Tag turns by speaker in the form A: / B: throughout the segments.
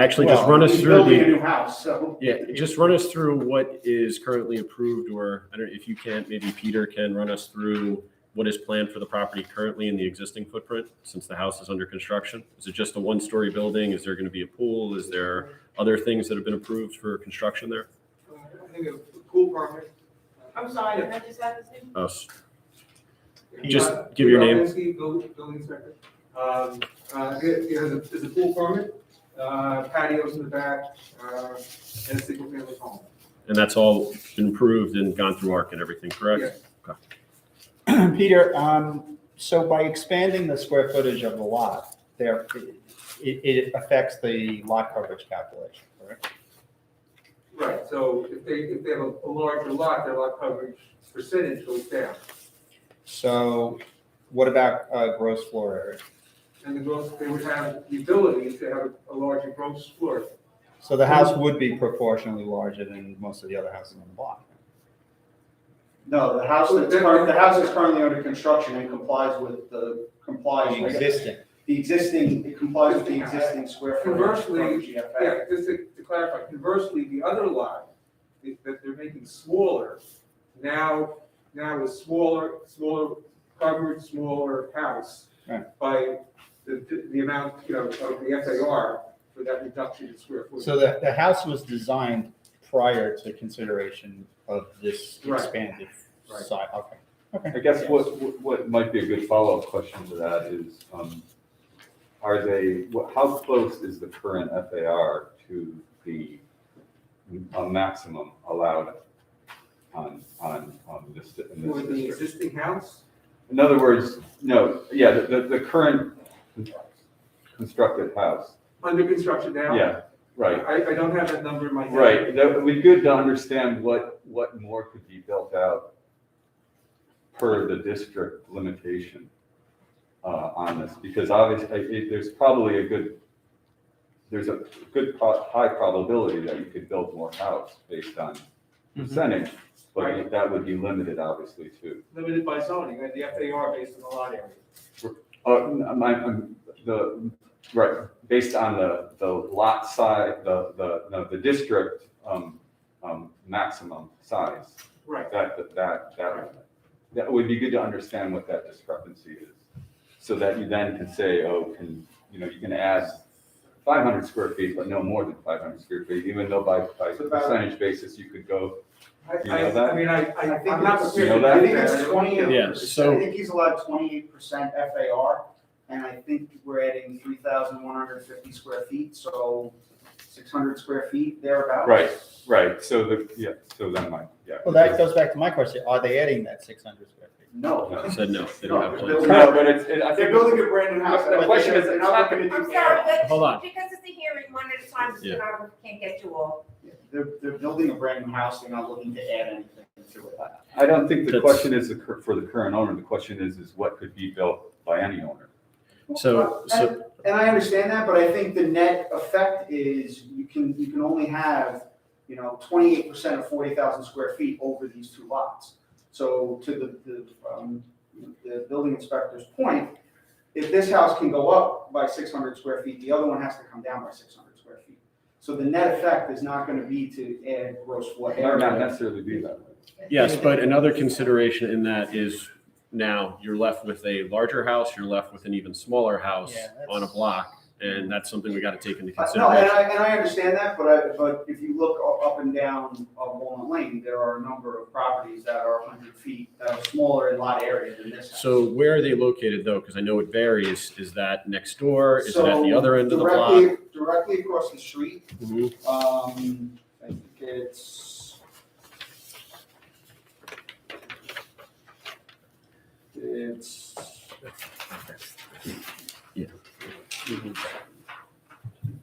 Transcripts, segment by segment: A: Actually, just
B: Well,
A: run us
B: he's
A: through
B: Building a
A: the,
B: new house, so.
A: yeah, just run us through what is currently approved or, I don't, if you can't, maybe Peter can run us through what is planned for the property currently in the existing footprint, since the house is under construction? Is it just a one-story building? Is there going to be a pool? Is there other things that have been approved for construction there?
C: I think a pool permit.
B: I'm sorry.
D: Can I just add this in?
A: Us, Just give your name.
C: Robinsky, buil- Uh, Building inspector. Um, uh, it, it has a, it's a pool permit, uh, patios in the back, uh, and a single family home.
A: and that's all been approved and gone through ARC and everything, correct?
E: Peter, um, so by expanding the square footage of the lot, there, it, it affects the lot coverage calculation, correct?
C: Right, so if they, if they have a a larger lot, their lot coverage percentage goes down.
E: So what about, uh, gross floor area?
C: And the gross, they would have the ability to have a larger gross floor.
E: So the house would be proportionally larger than most of the other houses on the block.
B: No, the house that's current, the house that's currently under construction and complies with the complies. with-
E: Existing.
B: The existing, it complies with the existing square footage.
C: Conversely,
B: frontage you have back.
C: Yeah, just to to clarify, conversely, the other lot is that they're making smaller, now, now is smaller, smaller covered, smaller house
E: Right.
C: by the, the- the amount, you know, of the FAR for that reduction in square footage.
E: So the, the house was designed prior to consideration of this
C: Right.
E: expanded
C: Right.
E: side, okay.
F: I guess what, what- what might be a good follow-up question to that is, um, are they, what- how close is the current FAR to the, a maximum allowed on, on, on this, in
C: For
F: this
C: the
F: district?
C: existing house,
F: In other words, no, yeah, the, the, the current constructed house,
C: under construction now.
F: yeah, right.
C: I, I don't have that number in my head.
F: Right, that would be good to understand what, what more could be built out per the district limitation uh, on this, because obviously, it- there's probably a good, there's a good, pro- high probability that you could build more house based on percentage, but
C: Right.
F: that would be limited, obviously, too.
C: Limited by zoning, and the FAR based on the lot area.
F: Uh, my, I'm- the, right, based on the, the lot size, the, the, no, the district um, um, maximum size.
C: Right.
F: That, that- that, that, that would be good to understand what that discrepancy is. So that you then can say, oh, can, you know, you can add five hundred square feet, but no more than five hundred square feet, even though by, by
C: So about-
F: percentage basis, you could go.
C: I,
F: You know
C: I,
F: that?
C: I mean, I, I,
B: think
C: I'm not
B: it's-
C: prepared to.
F: You know that?
B: I
C: do
B: think it's
C: don't
B: twenty.
C: know.
A: Yeah, so-
B: I think he's allowed twenty-eight percent FAR, and I think we're adding three thousand one hundred fifty square feet, so six hundred square feet thereabouts.
F: Right. Right, so the, yeah, so that might, yeah.
E: Well, that goes back to my question, are they adding that six hundred square feet?
B: No.
A: Said no, they don't have
B: No,
A: plans.
F: No, but it's, it- I
B: They're
F: think.
B: building a brand new house.
F: The question is,
B: They're
F: it's
B: not
F: not
B: gonna do.
D: I'm sorry, but
A: Hold on.
D: because it's a hearing, one at a time, so
A: Yeah.
D: I can't get you all.
B: They're, they're building a brand new house, they're not looking to add anything to it.
F: I don't think the
A: That's-
F: question is the cur- for the current owner, the question is, is what could be built by any owner?
A: So- so-
B: And- And I understand that, but I think the net effect is you can, you can only have, you know, twenty-eight percent of forty thousand square feet over these two lots. So to the, the, um, the building inspector's point, if this house can go up by six hundred square feet, the other one has to come down by six hundred square feet. So the net effect is not gonna be to add gross floor
F: It might not
B: area.
F: necessarily be that way.
A: Yes, but another consideration in that is now you're left with a larger house, you're left with an even smaller house
E: Yeah, that's-
A: on a block, and that's something we got to take into
B: Uh, No, and
A: consideration.
B: I, and I understand that, but I, but if you look u- up and down uh, Walnut Lane, there are a number of properties that are hundred feet, that are smaller in lot area than this house.
A: So where are they located though? Because I know it varies. Is that next door? Is it at the
B: So
A: other end of the
B: directly-
A: block?
B: Directly across the street,
A: Mhm.
B: um, I think it's. It's.
A: Yeah. mm-hmm.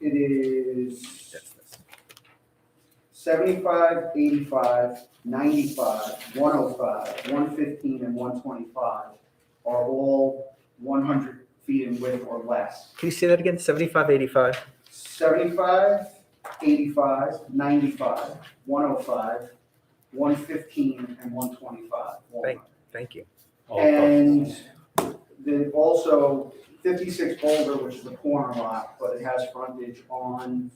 B: It is. Seventy-five, eighty-five, ninety-five, one oh five, one fifteen, and one twenty-five are all one hundred feet in width or less.
G: Can you say that again? Seventy-five, eighty-five?
B: Seventy-five, eighty-five, ninety-five, one oh five, one fifteen, and one twenty-five.
G: Thank- Thank you.
F: All across the
B: And
F: board.
B: then also fifty-six Boulder, which is the corner lot, but it has frontage on